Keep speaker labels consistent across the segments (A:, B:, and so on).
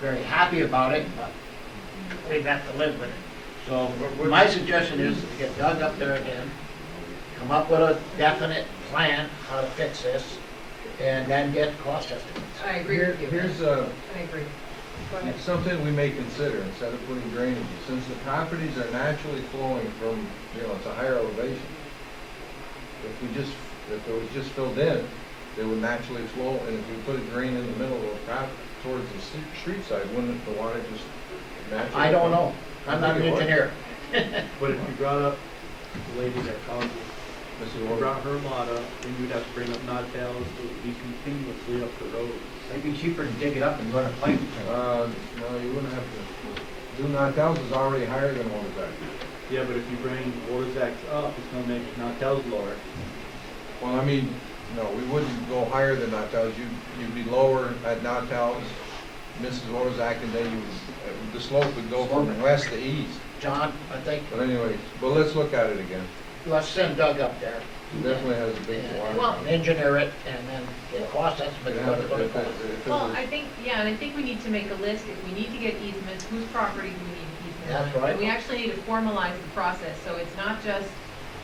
A: very happy about it, but we've got to live with it. So my suggestion is to get Doug up there again, come up with a definite plan how to fix this, and then get cost estimates.
B: I agree
C: Here-
B: with you.
C: Here's uh,
B: I agree. Go ahead.
C: something we may consider instead of putting drainage, since the properties are naturally flowing from, you know, it's a higher elevation. If we just, if it was just filled in, they would naturally flow, and if we put a drain in the middle of the property towards the se- street side, wouldn't the water just naturally?
A: I don't
C: flow?
A: know. I'm not an engineer.
D: But if you brought up the lady that called you,
C: Mrs.
D: if you
C: Warren,
D: brought her lot up, then you'd have to bring up Nod Tales, it would be continuously up the road.
E: It'd be cheaper to dig it up and run a pipe through.
C: uh, no, you wouldn't have to, do not, that is already higher than what is that.
D: Yeah, but if you bring Warzak's up, it's gonna make Nod Tales lower.
C: Well, I mean, no, we wouldn't go higher than Nautel's. You, you'd be lower at Nautel's, Mrs. Orzak, and then you, would- the slope would go from west to east.
A: John, I think,
C: But anyways, but let's look at it again.
A: let's send Doug up there,
C: It Definitely has a big
A: Yeah.
C: water.
B: Well,
A: engineer it, and then get cost
C: It
A: estimates, what
C: has-
A: it's gonna
C: if it-
A: cost.
C: if it
B: Well,
C: was-
B: I think, yeah, and I think we need to make a list, if we need to get easements, whose property do we need easements?
A: That's
B: on?
A: right.
B: And we actually need to formalize the process, so it's not just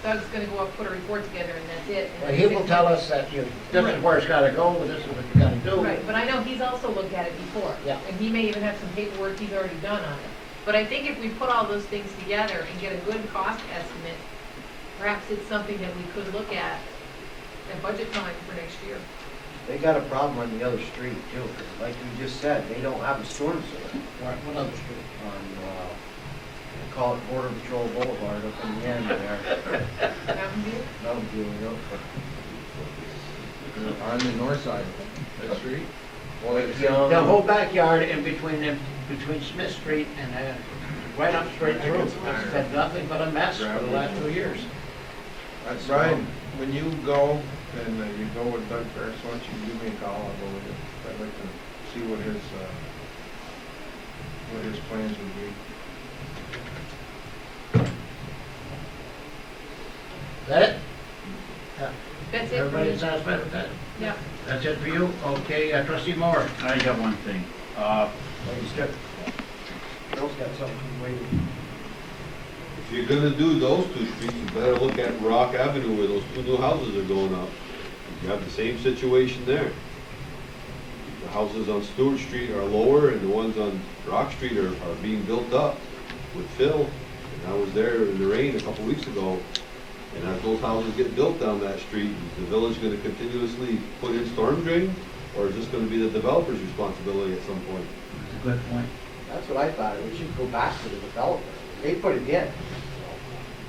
B: Doug's gonna go up, put a report together, and that's it. and
A: Well,
B: then
A: he
B: six
A: will tell
B: months-
A: us that you, this is where it's gotta go, this is what you gotta do.
B: Right, but I know he's also looked at it before.
A: Yeah.
B: And he may even have some paperwork he's already done on it. But I think if we put all those things together and get a good cost estimate, perhaps it's something that we could look at at budget time for next year.
E: They got a problem on the other street too, 'cause like you just said, they don't have a storm sewer
A: Right, what other street?
E: on, uh, they call it Border Patrol Boulevard up in the end there.
B: Mountain View?
E: That'll be, you know,
C: On the north side, that street. Well, it's,
E: Yeah.
A: The whole backyard in between them, between Smith Street and, uh, right up straight through, it's been nothing but a mess for the last two years.
C: uh, Brian, when you go, and uh, you go with Doug Ferris, why don't you give me a call, I'll go with you. I'd like to see what his, uh, what his plans would be.
A: Is that it?
B: That's it for
A: Everybody
B: me.
A: satisfied with that?
B: Yeah.
A: That's it for you? Okay, uh, trustee Moore?
F: I got one thing. Uh,
E: Ladies, got, girls got something waiting.
G: If you're gonna do those two streets, you better look at Rock Avenue where those two new houses are going up. You have the same situation there. The houses on Stewart Street are lower and the ones on Rock Street are, are being built up with fill. And I was there in the rain a couple weeks ago, and as those houses get built down that street, is the village gonna continuously put in storm drain? Or is this gonna be the developer's responsibility at some point?
F: it's a good point.
E: That's what I thought, we should go back to the developer. They put it in.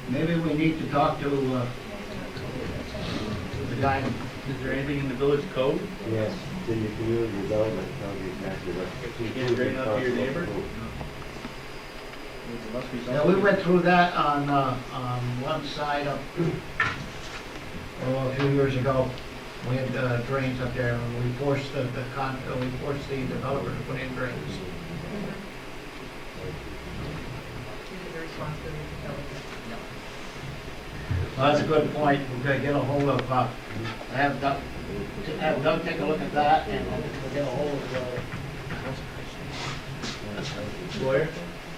F: Maybe we need to talk to, uh,
A: The guy.
F: is there anything in the village code?
H: Yes, then your community development, that'll be exactly right.
D: If you can't drain out to your neighbor, there must be
A: Yeah, we
D: something.
A: went through that on, uh, on one side of, oh, a few years ago. We had uh, drains up there, and we forced the, the con, uh, we forced the developer to put in drains.
B: It is a responsibility of the developer.
A: Well, that's a good point. We're gonna get a hold of, uh, have Doug, have Doug take a look at that, and we'll get a hold of, uh,
D: Lawyer?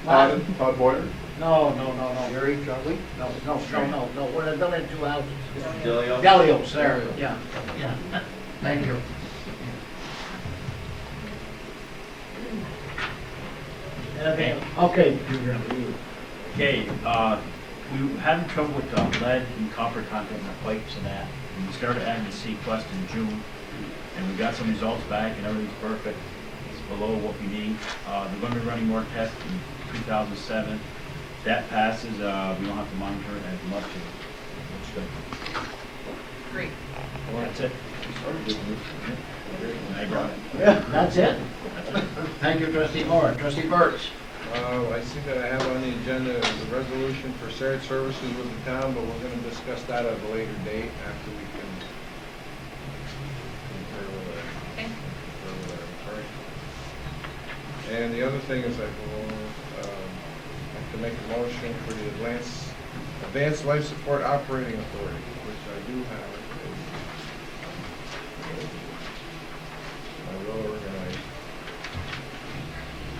A: Bob?
G: Todd Boyer?
A: No, no, no, no.
E: Gary, Charlie?
A: No, no, no, no, no, we're not building two houses.
D: Delio?
A: Delios, there, yeah, yeah. Thank you. Okay, okay.
F: Okay, uh, we were having trouble with uh, lead and copper content in our pipes and that. And we started having to see quest in June, and we got some results back and everything's perfect. It's below what we need. Uh, they're gonna be running more tests in two thousand seven. That passes, uh, we don't have to monitor it as much. It's good.
B: Great.
F: That's it. I brought it.
A: That's it? Thank you, trustee Moore. Trustee Burks?
C: Uh, I see that I have on the agenda is a resolution for shared services with the town, but we're gonna discuss that at a later date after we can. confer with our-
B: Okay.
C: confer with our attorney. And the other thing is I will, um, like to make a motion for the Advance, Advanced Life Support Operating Authority, which I do have. um,